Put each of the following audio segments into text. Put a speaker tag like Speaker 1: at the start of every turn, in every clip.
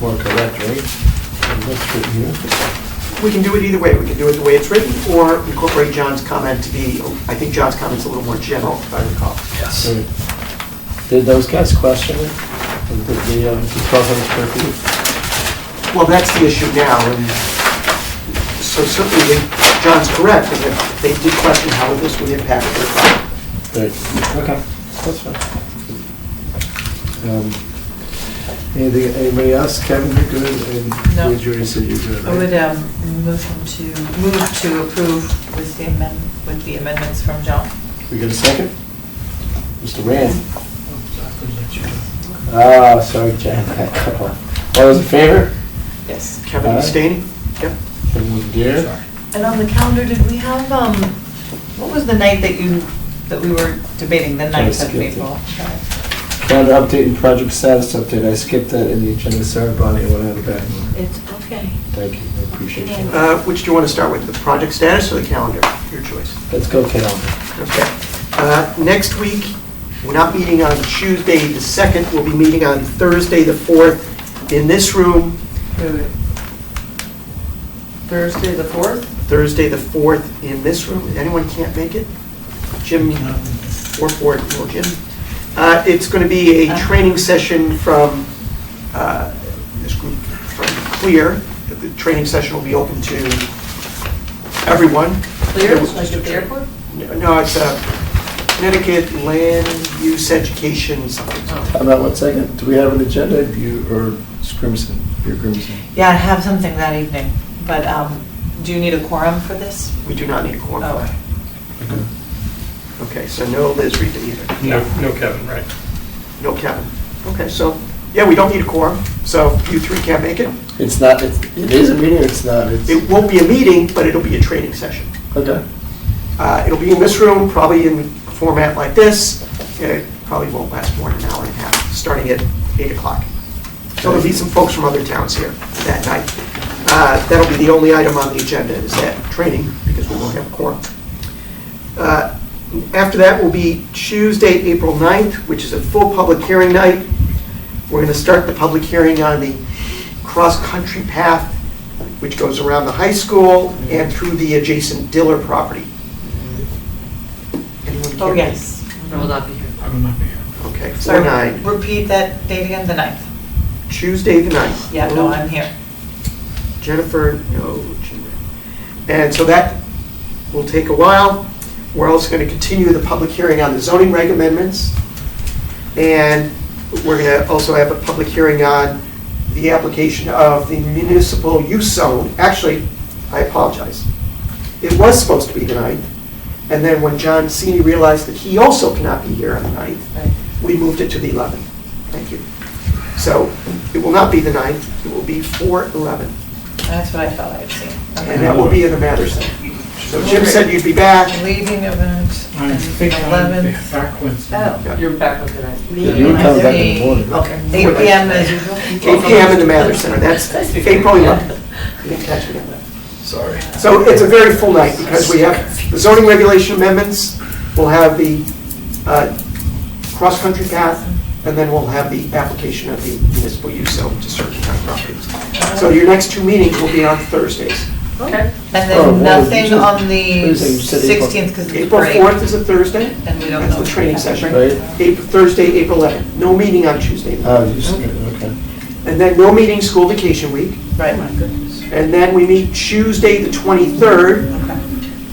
Speaker 1: more correct, right? And that's good here.
Speaker 2: We can do it either way. We can do it the way it's written, or incorporate John's comment to be, I think John's comment's a little more general, if I recall.
Speaker 3: Yes.
Speaker 1: Did those guys question it? And Did the, um, the twelve hundred square feet?
Speaker 2: Well, that's the issue now, and so certainly they- John's correct, and if they did question how this would impact their project.
Speaker 1: Right, okay, that's fine. Um, Anything, anybody else? Kevin, you're good, and
Speaker 4: No.
Speaker 1: you, Judy said you're good,
Speaker 4: I would
Speaker 1: right?
Speaker 4: um, move him to, move to approve with the amend, with the amendments from John.
Speaker 1: We got a second? Mr. Rand? Ah, sorry, Jan, I cut off. All those in favor?
Speaker 4: Yes.
Speaker 2: Kevin
Speaker 1: Aye.
Speaker 2: abstaining? Yep.
Speaker 1: Anyone dare?
Speaker 4: And on the calendar, did we have, um, what was the night that you, that we were debating, the
Speaker 1: I
Speaker 4: ninth
Speaker 1: skipped
Speaker 4: of
Speaker 1: it.
Speaker 4: April?
Speaker 1: Calendar update and project status update, I skipped that in the agenda, sorry, Bonnie, I went out of that.
Speaker 5: It's okay.
Speaker 1: Thank you, I appreciate it.
Speaker 2: Uh, Which do you want to start with, the project status or the calendar? Your choice.
Speaker 1: Let's go calendar.
Speaker 2: Okay. Uh, Next week, we're not meeting on Tuesday the 2nd, we'll be meeting on Thursday the 4th in this room,
Speaker 4: Wait, wait. Thursday, the fourth?
Speaker 2: Thursday the 4th in this room. Anyone can't make it? Jim or Ford, or Jim. Uh, It's going to be a
Speaker 5: Uh-huh.
Speaker 2: training session from uh, this group from Clear. The training session will be open to everyone.
Speaker 5: Clear, like at the airport?
Speaker 2: No, it's uh, Connecticut Land Use Education something.
Speaker 5: Oh.
Speaker 1: How about one second, do we have an agenda, you, or it's Grimson, you're Grimson?
Speaker 4: Yeah, I have something that evening, but um, do you need a quorum for this?
Speaker 2: We do not need a quorum.
Speaker 4: Oh,
Speaker 2: Okay, so no Liz Rita either.
Speaker 3: No, no Kevin, right.
Speaker 2: No Kevin. Okay, so, yeah, we don't need a quorum, so you three can't make it.
Speaker 1: It's not, it's- it is a meeting, or it's not, it's,
Speaker 2: It won't be a meeting, but it'll be a training session.
Speaker 1: okay.
Speaker 2: Uh, It'll be in this room, probably in a format like this. It probably won't last more than an hour and a half, starting at 8 o'clock. So there'll be some folks from other towns here that night. Uh, That'll be the only item on the agenda, is that training, because we won't have a quorum. Uh, After that will be Tuesday, April 9th, which is a full public hearing night. We're going to start the public hearing on the cross-country path, which goes around the high school and through the adjacent Diller property. Anyone care?
Speaker 4: oh, yes.
Speaker 5: I will not be here.
Speaker 3: I will not be here.
Speaker 2: Okay,
Speaker 4: Sorry.
Speaker 2: 4/9,
Speaker 4: Repeat that date again, the ninth.
Speaker 2: Tuesday the 9th.
Speaker 4: Yeah, no, I'm here.
Speaker 2: Jennifer, no, Jennifer. And so that will take a while. We're also going to continue the public hearing on the zoning reg amendments. And we're going to also have a public hearing on the application of the municipal use zone. Actually, I apologize. It was supposed to be the 9th. And then when John Cini realized that he also cannot be here on the 9th,
Speaker 4: Right.
Speaker 2: we moved it to the 11th. Thank you. So it will not be the 9th, it will be 4/11,
Speaker 4: That's what I thought I had seen. Okay.
Speaker 2: and that will be in the Matters Center. So Jim said you'd be back.
Speaker 4: Leaving event,
Speaker 3: I think I'll be
Speaker 4: 11th.
Speaker 3: back Wednesday.
Speaker 4: Oh.
Speaker 5: You're back with it.
Speaker 1: Yeah, You would come back in the morning.
Speaker 4: Okay, 8 PM as usual.
Speaker 2: 8 PM in the Mathers Center, that's April 11th. You didn't catch me on that.
Speaker 1: Sorry.
Speaker 2: So it's a very full night, because we have the zoning regulation amendments, we'll have the uh, cross-country path, and then we'll have the application of the municipal use zone to certain town properties. So your next two meetings will be on Thursdays.
Speaker 5: Okay.
Speaker 4: Uh, And
Speaker 1: Oh, well,
Speaker 4: then nothing
Speaker 1: you said-
Speaker 4: on the
Speaker 1: you said April-
Speaker 4: 16th because it's
Speaker 2: April
Speaker 4: break.
Speaker 2: 4th is a Thursday,
Speaker 4: And we don't
Speaker 2: that's
Speaker 4: know.
Speaker 2: the training session.
Speaker 1: Right.
Speaker 2: April- Thursday, April 11th, no meeting on Tuesday.
Speaker 1: Oh, you said, okay.
Speaker 2: And then no meeting school vacation week.
Speaker 4: Right, my goodness.
Speaker 2: And then we meet Tuesday, the 23rd,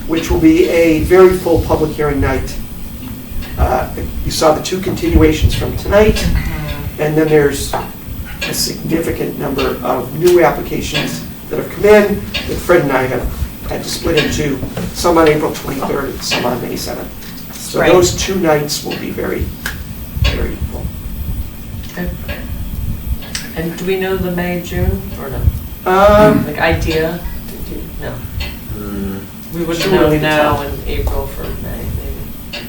Speaker 2: which will be a very full public hearing night. Uh, You saw the two continuations from tonight, and then there's a significant number of new applications that have come in that Fred and I have had to split into, some on April 23rd and some on May 7th. So
Speaker 4: Right.
Speaker 2: those two nights will be very, very full.
Speaker 5: And do we know the May, June, or no?
Speaker 2: Um,
Speaker 5: Like idea? Did you- No. We wouldn't
Speaker 2: Sure,
Speaker 5: know
Speaker 2: we can
Speaker 5: now
Speaker 2: tell.
Speaker 5: in April for May, maybe.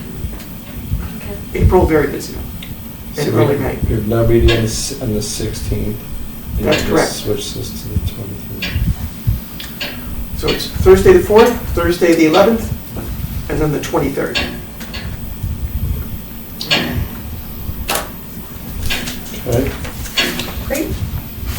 Speaker 2: April, very busy.
Speaker 1: So
Speaker 2: And
Speaker 1: we-
Speaker 2: early May.
Speaker 1: We have no meeting on the s- on the 16th. and
Speaker 2: That's
Speaker 1: we
Speaker 2: correct.
Speaker 1: Switch this to the 23rd.
Speaker 2: So it's Thursday the 4th, Thursday the 11th, and then the 23rd.